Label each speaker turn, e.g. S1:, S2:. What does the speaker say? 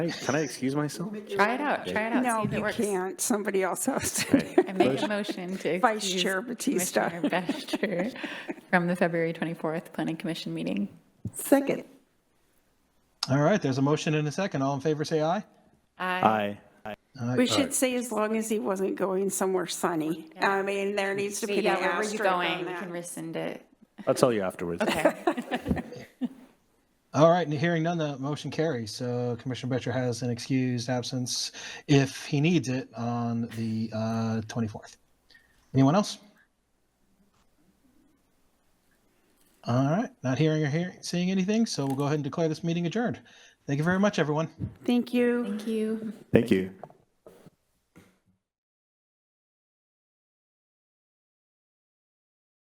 S1: Hey, Can I excuse myself?
S2: Try it out, try it out.
S3: No,
S2: see if it
S3: you
S2: works.
S3: can't. Somebody else has to. do it.
S2: I make a motion to
S3: Vice
S2: excuse
S3: Chair Batista.
S2: Commissioner Battister from the February 24th Planning Commission meeting.
S3: Second.
S4: All right, there's a motion and a second. All in favor, say aye.
S3: Uh,
S2: Uh,
S1: Aye.
S3: We should say as long as he wasn't going somewhere sunny. I mean, there needs to be an
S2: Yeah, where were you
S3: asterisk
S2: going?
S3: on
S2: You can
S3: that.
S2: rescind it.
S1: I'll tell you afterwards.
S2: Okay.
S4: All right, and hearing none, the motion carries. So Commissioner Betcher has an excused absence if he needs it on the uh, 24th. Anyone else? All right, not hearing or hearing, seeing anything, so we'll go ahead and declare this meeting adjourned. Thank you very much, everyone.
S3: Thank you.
S2: Thank you.
S1: Thank you.